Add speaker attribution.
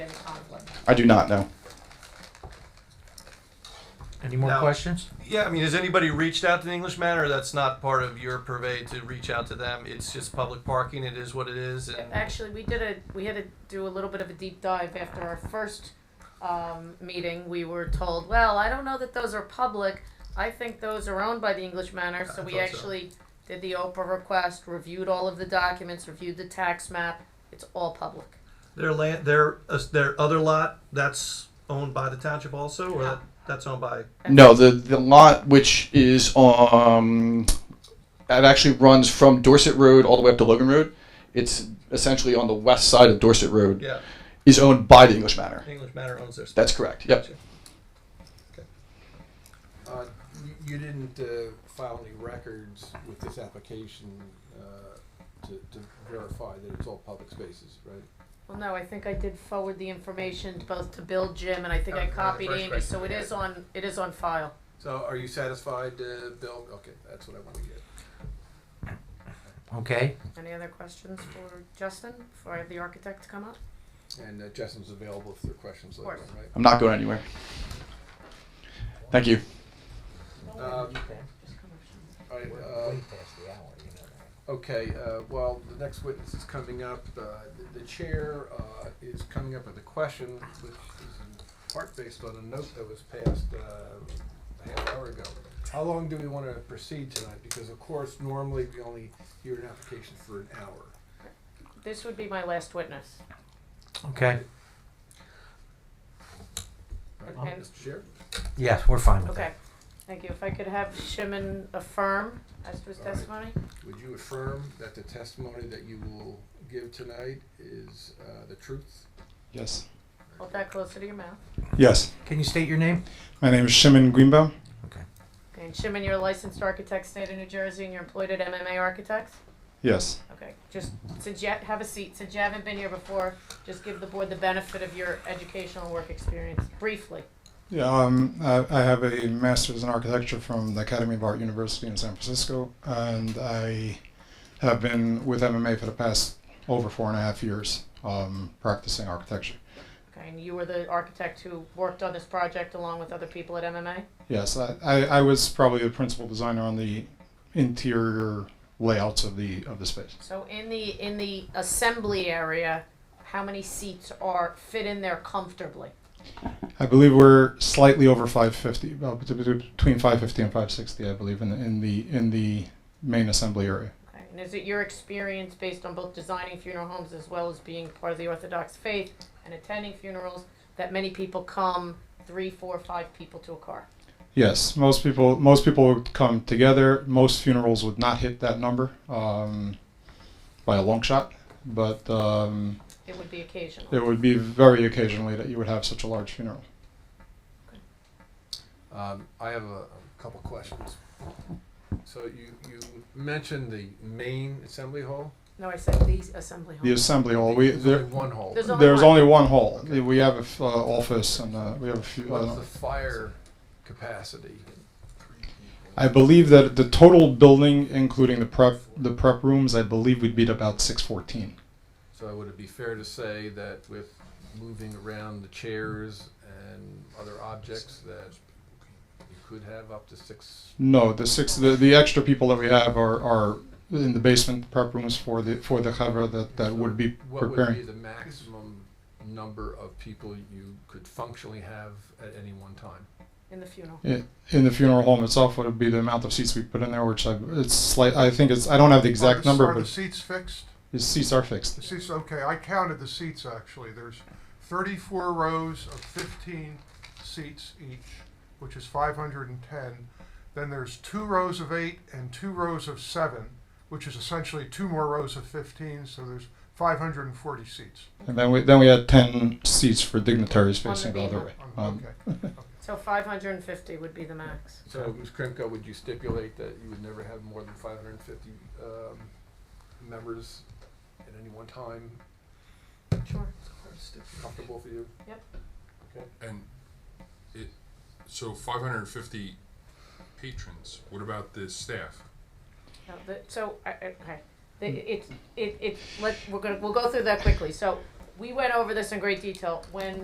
Speaker 1: I do not know.
Speaker 2: Any more
Speaker 3: No.
Speaker 2: questions?
Speaker 3: Yeah, I mean, has anybody reached out to the English Manor? That's not part of your purvey to reach out to them. It's just public parking. It is what it is. And
Speaker 4: Actually, we did a, we had to do a little bit of a deep dive after our first um, meeting. We were told, well, I don't know that those are public. I think those are owned by the English Manor, so
Speaker 3: I
Speaker 4: we
Speaker 3: thought so.
Speaker 4: actually did the Oprah request, reviewed all of the documents, reviewed the tax map. It's all public.
Speaker 3: their land, their uh, their other lot, that's owned by the township also, or that, that's owned by.
Speaker 1: No, the the lot which is um, it actually runs from Dorset Road all the way up to Logan Road. It's essentially on the west side of Dorset Road.
Speaker 3: Yeah,
Speaker 1: Is owned by the English Manor.
Speaker 3: the English Manor owns their.
Speaker 1: That's correct. Yep.
Speaker 5: Uh, you- You didn't uh, file any records with this application uh, to to verify that it's all public spaces, right?
Speaker 4: Well, no, I think I did forward the information both to Bill, Jim, and I think
Speaker 3: That
Speaker 4: I
Speaker 3: was my
Speaker 4: copied
Speaker 3: Oh, first
Speaker 4: Amy,
Speaker 3: question.
Speaker 4: so it is on, it is on file.
Speaker 5: So are you satisfied, uh, Bill? Okay, that's what I want to get.
Speaker 2: Okay.
Speaker 4: Any other questions for Justin before I have the architect come up?
Speaker 5: And uh, Justin's available if there are questions later
Speaker 4: course.
Speaker 5: on, right?
Speaker 1: I'm not going anywhere. Thank you.
Speaker 5: Um, all right, uh, Okay, uh, well, the next witness is coming up. Uh, the- The chair uh, is coming up with a question, which is in part based on a note that was passed uh, a half hour ago. How long do we want to proceed tonight? Because of course, normally we only hear an application for an hour.
Speaker 4: This would be my last witness.
Speaker 2: Okay.
Speaker 5: Right,
Speaker 4: Okay.
Speaker 5: Mr. Chair?
Speaker 2: Yes, we're fine with
Speaker 4: Okay,
Speaker 2: that.
Speaker 4: thank you. If I could have Shimon affirm as to his
Speaker 5: All right.
Speaker 4: testimony?
Speaker 5: Would you affirm that the testimony that you will give tonight is uh, the truth?
Speaker 1: Yes.
Speaker 4: Hold that closer to your mouth.
Speaker 6: Yes,
Speaker 2: Can you state your name?
Speaker 6: my name is Shimon Greenbaum.
Speaker 2: Okay.
Speaker 4: Okay, and Shimon, you're a licensed architect, state of New Jersey, and you're employed at MMA Architects?
Speaker 6: Yes,
Speaker 4: Okay, just, since you, ha- have a seat, since you haven't been here before, just give the board the benefit of your educational work experience, briefly.
Speaker 6: yeah, um, I, I have a master's in architecture from the Academy of Art University in San Francisco, and I have been with MMA for the past over four and a half years um, practicing architecture.
Speaker 4: Okay, and you were the architect who worked on this project along with other people at MMA?
Speaker 6: Yes, I, I, I was probably the principal designer on the interior layouts of the of the space.
Speaker 4: So in the, in the assembly area, how many seats are, fit in there comfortably?
Speaker 6: I believe we're slightly over 550, about bet- bet- between 550 and 560, I believe, in the in the in the main assembly area.
Speaker 4: Okay, and is it your experience based on both designing funeral homes as well as being part of the Orthodox faith and attending funerals that many people come three, four, five people to a car?
Speaker 6: Yes, most people most people would come together. Most funerals would not hit that number um, by a long shot, but um,
Speaker 4: It would be occasional.
Speaker 6: it would be very occasionally that you would have such a large funeral.
Speaker 5: Um, I have a, a couple questions. So you, you mentioned the main assembly hall?
Speaker 4: No, I said the assembly hall.
Speaker 6: The assembly hall. We
Speaker 5: There's
Speaker 6: there,
Speaker 5: only one hall.
Speaker 4: There's only
Speaker 6: there's
Speaker 4: one.
Speaker 6: only one hall. We have a f- uh, office and uh, we have a few.
Speaker 5: What's
Speaker 6: Uh,
Speaker 5: the fire capacity?
Speaker 6: I believe that the total building, including the prep the prep rooms, I believe would be at about 614.
Speaker 5: So would it be fair to say that with moving around the chairs and other objects that you could have up to six?
Speaker 6: No, the six the, the extra people that we have are, are in the basement prep rooms for the for the cover that, that would be
Speaker 5: What would be
Speaker 6: preparing.
Speaker 5: the maximum number of people you could functionally have at any one time?
Speaker 4: In the funeral.
Speaker 6: I- In the funeral home itself, would be the amount of seats we put in there, which I it's slight. I think it's I don't have the
Speaker 7: Are
Speaker 6: exact
Speaker 7: the-
Speaker 6: number,
Speaker 7: Are the
Speaker 6: but
Speaker 7: seats fixed?
Speaker 6: the seats are
Speaker 7: The
Speaker 6: fixed.
Speaker 7: seats, okay, I counted the seats actually. There's thirty-four rows of fifteen seats each, which is five hundred and ten. Then there's two rows of eight and two rows of seven, which is essentially two more rows of fifteen, so there's five hundred and forty seats.
Speaker 6: And then we then we had ten seats for dignitaries
Speaker 4: On the
Speaker 6: facing the other way.
Speaker 7: Um,
Speaker 6: Um,
Speaker 7: Okay.
Speaker 4: So 550 would be the max.
Speaker 5: So, Ms. Krimko, would you stipulate that you would never have more than five hundred and fifty, um, members at any one time?
Speaker 4: Sure.
Speaker 5: Comfortable for you?
Speaker 8: And it, so five hundred and fifty patrons, what about the staff?
Speaker 4: No, the, so, I- I- okay, The- it, it, it, let, we're gonna, we'll go through that quickly. So, we went over this in great detail. When